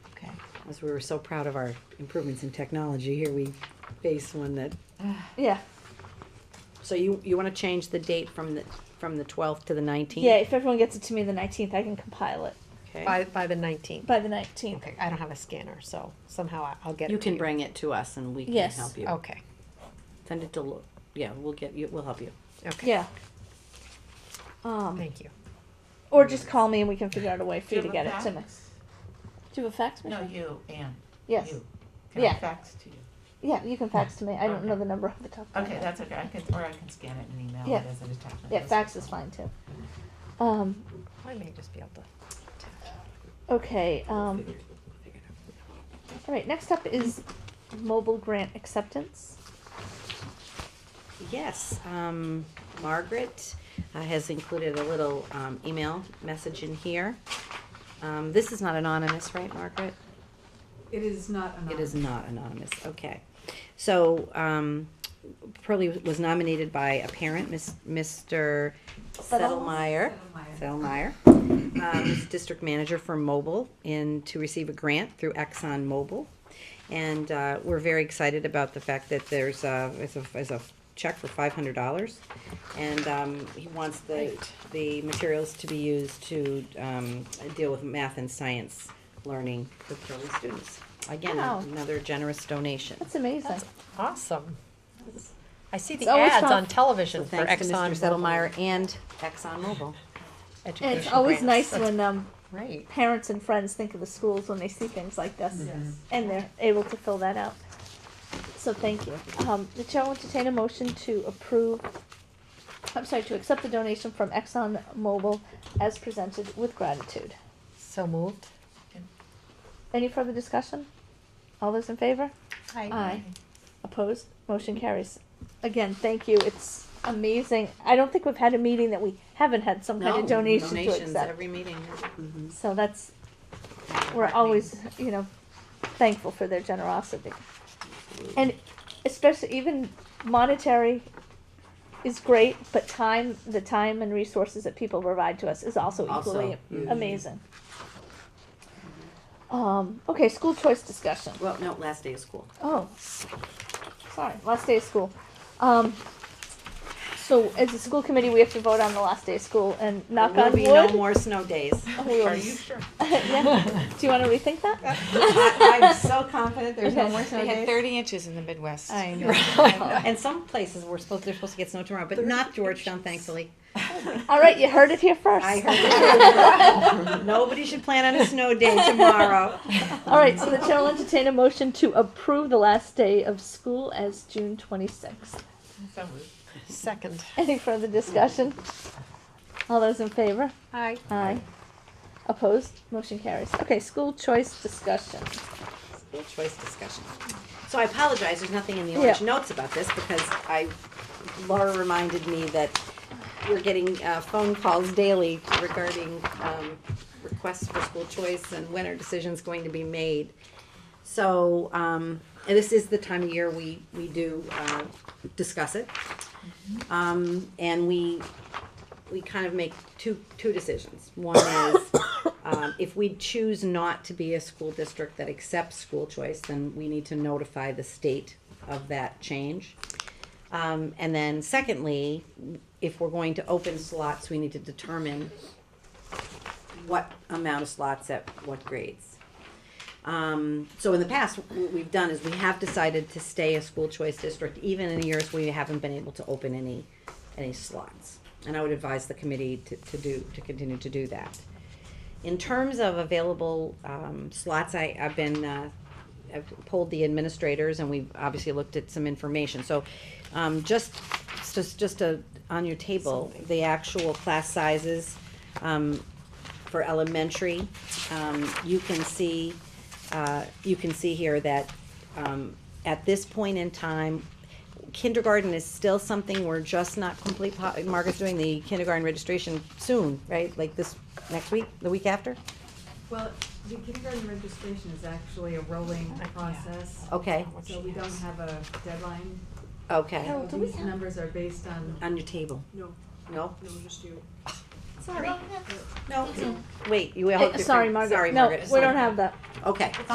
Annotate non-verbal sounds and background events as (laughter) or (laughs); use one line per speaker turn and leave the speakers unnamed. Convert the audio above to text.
as we were so proud of our improvements in technology, here we face one that,
Yeah,
so you, you wanna change the date from the, from the twelfth to the nineteenth?
yeah. If everyone gets it to me the nineteenth, I can compile it
Okay,
By, by the nineteenth.
by the nineteenth.
Okay, I don't have a scanner, so somehow I- I'll get it.
you
to
can bring it to us and we can
Yes.
help you.
Okay,
Send it to, Lo- yeah, we'll get you, we'll help you.
okay.
Yeah. Um,
Thank you.
or just call me and we can figure out a way for
Do
you
you
to
have
get
a
it to me.
fax?
Do you have a fax machine?
No, you, Anne.
yes.
You. Can
Yeah.
I fax to you?
Yeah, you can fax to me. I don't
Okay.
know the number off the top. Of my
Okay,
head.
that's okay, I can, or I can scan it and email
Yeah.
it as an attachment.
Yeah, fax is fine too. Um,
I may just be able to.
okay. Um, all right. Next up is mobile grant acceptance.
Yes, um, Margaret uh, has included a little, um, email message in here. Um, this is not anonymous, right, Margaret?
It is not
It
anonymous.
is not anonymous, okay. So, um, Pearlie was nominated by a parent, Miss, Mr. Settlemeyer. Settlemeyer,
Settlemeyer.
um, is district manager for mobile, and to receive a grant through Exxon Mobil. And, uh, we're very excited about the fact that there's, uh, is a, is a check for five hundred dollars. And, um, he wants the, the materials to be used to, um, deal with math and science learning for Pearlie students. Again,
Wow.
another generous donation.
That's amazing.
Awesome. I see the
It's always
ads
fun.
on television
So
for
thanks to Mr.
Exxon.
Settlemeyer and Exxon Mobil.
and
Education
it's always nice
grants. That's
when um,
Great.
parents and friends think of the schools when they see things like this, and they're able to fill that out. So thank you. Um, the chair will entertain a motion to approve. I'm sorry, to accept the donation from Exxon ExxonMobil as presented with gratitude.
So moved.
Any further discussion? All those in favor? Aye. Opposed? Motion carries. Again, thank you. It's amazing. I don't think we've had a meeting that we haven't had some kind of donation to
Donations
accept.
every meeting. Mm-hmm.
So that's, we're always, you know, thankful for their generosity. And especially even monetary is great, but time, the time and resources that people provide to us is also equally
Also, mhm.
amazing. Um, okay, school choice discussion.
Well, no, last day of school.
Oh, sorry, last day of school. Um, so as a school committee, we have to vote on the last day of school and knock
There
on
will be
wood.
no more snow days.
we
Are
will-
you sure?
Yeah. Do you want to rethink that?
(laughs) I- I'm so confident there's no
Okay.
more (laughs) snow
We had
days.
thirty inches in the Midwest.
(laughs)
I know.
And some places were supposed, they're supposed to get snow tomorrow, but not Georgetown, thankfully.
All right, you heard it here first.
I heard. Nobody should plan on a snow day tomorrow.
All right, so the chair will entertain a motion to approve the last day of school as June 26th.
So moved.
Second.
Any further discussion? All those in favor?
Aye.
Aye. Opposed? Motion carries. Okay, school choice discussion.
school choice discussion. So I apologize, there's nothing in the
Yeah.
orange notes about this because I, Laura reminded me that we're getting uh, phone calls daily regarding um, requests for school choice and when our decision's going to be made. So, um, and this is the time of year we, we do uh, discuss it. Um, and we, we kind of make two, two decisions. One is, um, if we choose not to be a school district that accepts school choice, then we need to notify the state of that change. Um, and then secondly, if we're going to open slots, we need to determine what amount of slots at what grades. Um, so in the past, what we've done is we have decided to stay a school choice district, even in years we haven't been able to open any, any slots. And I would advise the committee to, to do, to continue to do that. In terms of available um, slots, I, I've been, uh, I've polled the administrators and we've obviously looked at some information. So um, just, just, just uh on your table, the actual class sizes um, for elementary, um, you can see, uh, you can see here that um, at this point in time, kindergarten is still something we're just not complete, po- Margaret's doing the kindergarten registration soon, right? Like this, next week, the week after?
Well, the kindergarten registration is actually a rolling process.
Oh.
Okay,
So we don't have a deadline.
okay,
Oh,
So
do we
These
have-
numbers are based on,
on your table,
no,
no?
no, just you.
Sorry. No, wait, you all.
Eh, Sorry, Margaret.
Sorry,
No,
Margaret.
we don't have that.
Okay.